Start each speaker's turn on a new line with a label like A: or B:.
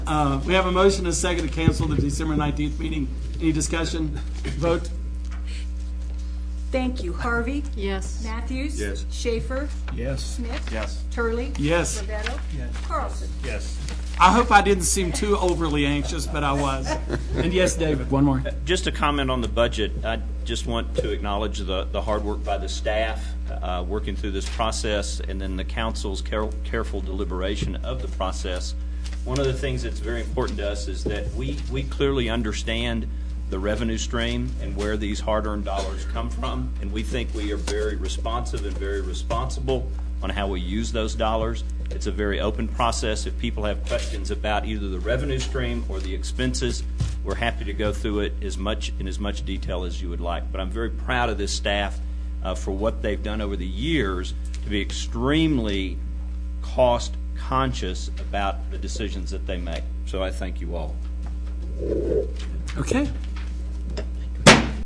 A: Uh, We have a motion and a second to cancel the December 19th meeting. Any discussion? Vote?
B: Thank you. Harvey?
C: Yes.
B: Matthews?
D: Yes.
B: Schaefer?
E: Yes.
B: Smith?
D: Yes.
B: Turley?
A: Yes.
B: Rovetto? Carlson?
D: Yes.
A: I hope I didn't seem too overly anxious, but I was. And yes, David, one more.
F: Just a comment on the budget, I just want to acknowledge the, the hard work by the staff, uh, working through this process, and then the council's care- careful deliberation of the process. One of the things that's very important to us is that we, we clearly understand the revenue stream and where these hard-earned dollars come from, and we think we are very responsive and very responsible on how we use those dollars. It's a very open process. If people have questions about either the revenue stream or the expenses, we're happy to go through it as much, in as much detail as you would like. But I'm very proud of this staff uh, for what they've done over the years to be extremely cost-conscious about the decisions that they make. So I thank you all.
A: Okay.